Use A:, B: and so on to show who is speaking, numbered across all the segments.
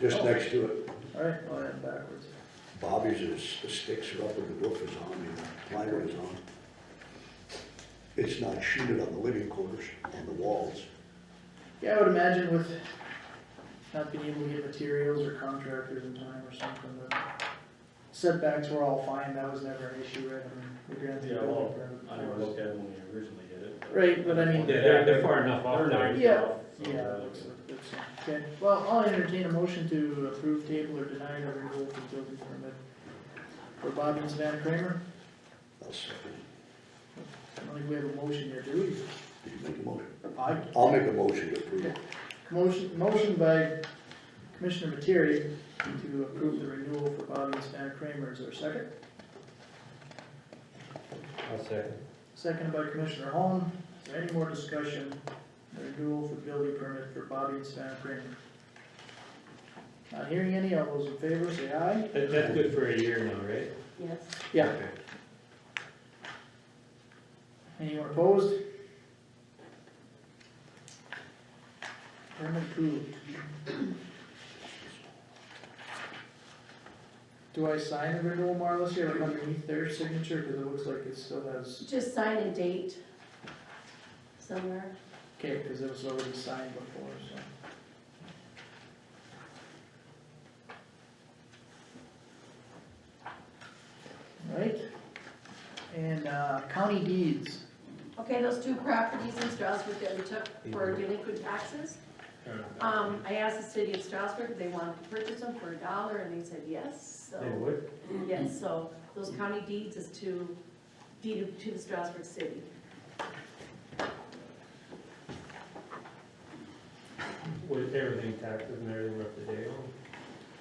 A: just next to it.
B: Alright, I went backwards.
A: Bobby's is, the sticks are up and the roof is on, and the plywood is on. It's not sheeted on the living quarters, on the walls.
B: Yeah, I would imagine with not being able to get materials or contractors in time or something, but setbacks were all fine, that was never an issue, right? I mean, we granted the
C: Yeah,
B: building
C: well,
B: permit.
C: I never looked at it when we originally did it.
B: Right, but I mean-
D: Yeah, they're, they're far enough off there.
B: Yeah,
C: So,
B: yeah,
C: uh,
B: that looks like that's, okay, well, I'll entertain a motion to approve table or deny the renewal of the building permit for Bob and Savannah Kramer.
A: I'll second.
B: I don't think we have a motion here, do
A: Did you make a motion?
B: we? I,
A: I'll make a motion to approve.
B: Motion, motion by Commissioner Materi to approve the renewal for Bobby and Stan Kramer, is there a second?
D: I'll second.
B: Second by Commissioner Holm, is there any more discussion, on the renewal for building permit for Bobby and Stan Kramer? Not hearing any, all those in favor say aye?
D: That, that's good for a year now, right?
E: Yes.
B: Yeah.
D: Okay.
B: Anyone opposed? Permit approved. Do I sign the renewal, Marla, here, like underneath their signature, cause it looks like it still has,
E: Just sign a date somewhere.
B: okay, cause it was already signed before, so. Right, and, uh, county deeds.
E: Okay, those two properties in Strasburg that we took for delinquent taxes. Um, I asked the city of Strasburg if they wanted to purchase them for a dollar, and they said yes,
D: They
E: so,
D: would?
E: yes, so those county deeds is to, deed to the Strasburg city.
D: With everything taxes and everything up to date on?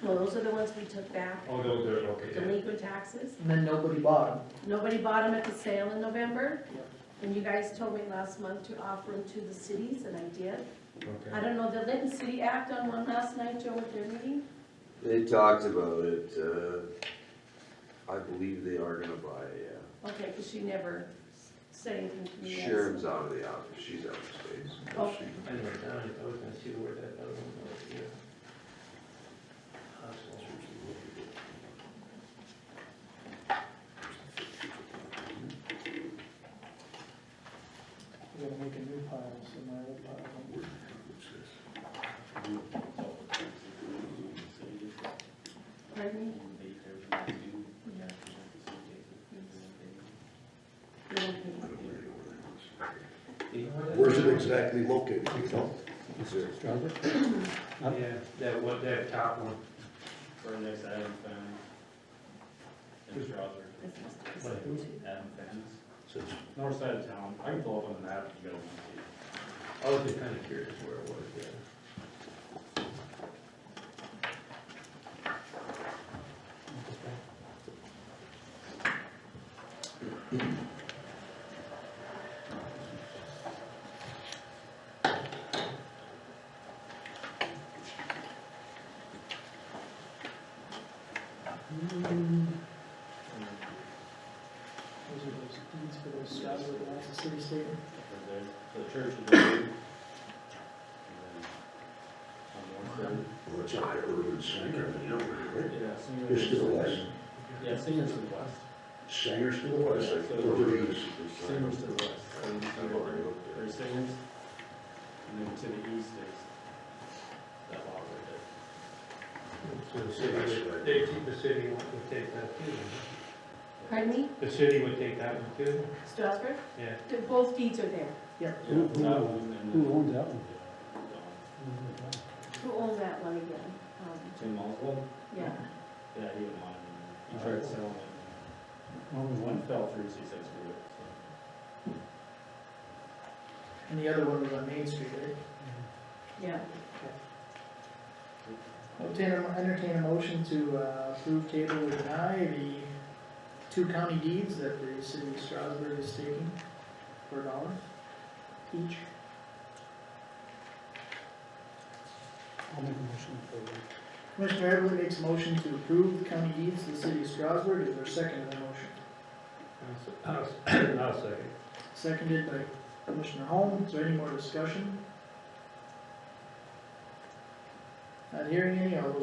E: Well, those are the ones we took back,
D: Oh, those are, okay.
E: delinquent taxes.
B: And then nobody bought them.
E: Nobody bought them at the sale in November.
B: Yep.
E: And you guys told me last month to offer them to the cities, and I did.
D: Okay.
E: I don't know, did Lincoln City act on one last night, Joe, with their meeting?
F: They talked about it, uh, I believe they are gonna buy, uh, yeah.
E: Okay, because she never said anything to me.
F: Sharon's out of the office, she's out of space.
E: Oh.
D: I know, Don, if I was gonna see where that other one was, yeah.
B: We're gonna make a new pile, so my old pile won't work.
E: Pardon me?
A: Where's it exactly located, you know? Is there-
D: Yeah, that one, that top one,
C: For the next Adam Fence. In Strasburg, Adam Fence,
A: says-
C: north side of town, I can pull up on the map if you guys want
D: I was just kinda curious where it was, yeah.
B: Those are those deeds for those uh, Scotts that belong to city statement.
C: to see. There's the church is there. and then On
A: Well, it's up there, Urban Sanger, you know,
C: one side, yeah, Singer's.
A: It's to the west.
C: Yeah, Singer's to the west,
A: Sanger's to the west, Urban is.
C: Singer's to the west, So you see where- there's Singer's, and then to the east is that lot right there.
D: So the city, would- they, the city would take that too, huh?
E: Pardon me?
D: the city would take that one too?
E: Strasburg?
D: Yeah.
E: They're- Both deeds are there.
C: Who owns that one?
E: Who owns that one again? Um,
C: Tim Oswald?
E: Yeah.
C: Yeah, he didn't want it. He tried selling it. Oh. Only one fell through, so he said screw it. so.
B: And the other one was on Main Street, right?
E: Yeah.
B: I'll Entertain, a- entertain a motion to uh, approve table or deny the two county deeds that the city of Strasburg is taking for a dollar each. I'll make a motion for Commissioner Everly makes a motion to approve the county deeds to the city of Strasburg, is there a second to the motion?
D: I'll, s- I'll second.
B: Seconded by Commissioner Holm, is there any more discussion? Not hearing any, all those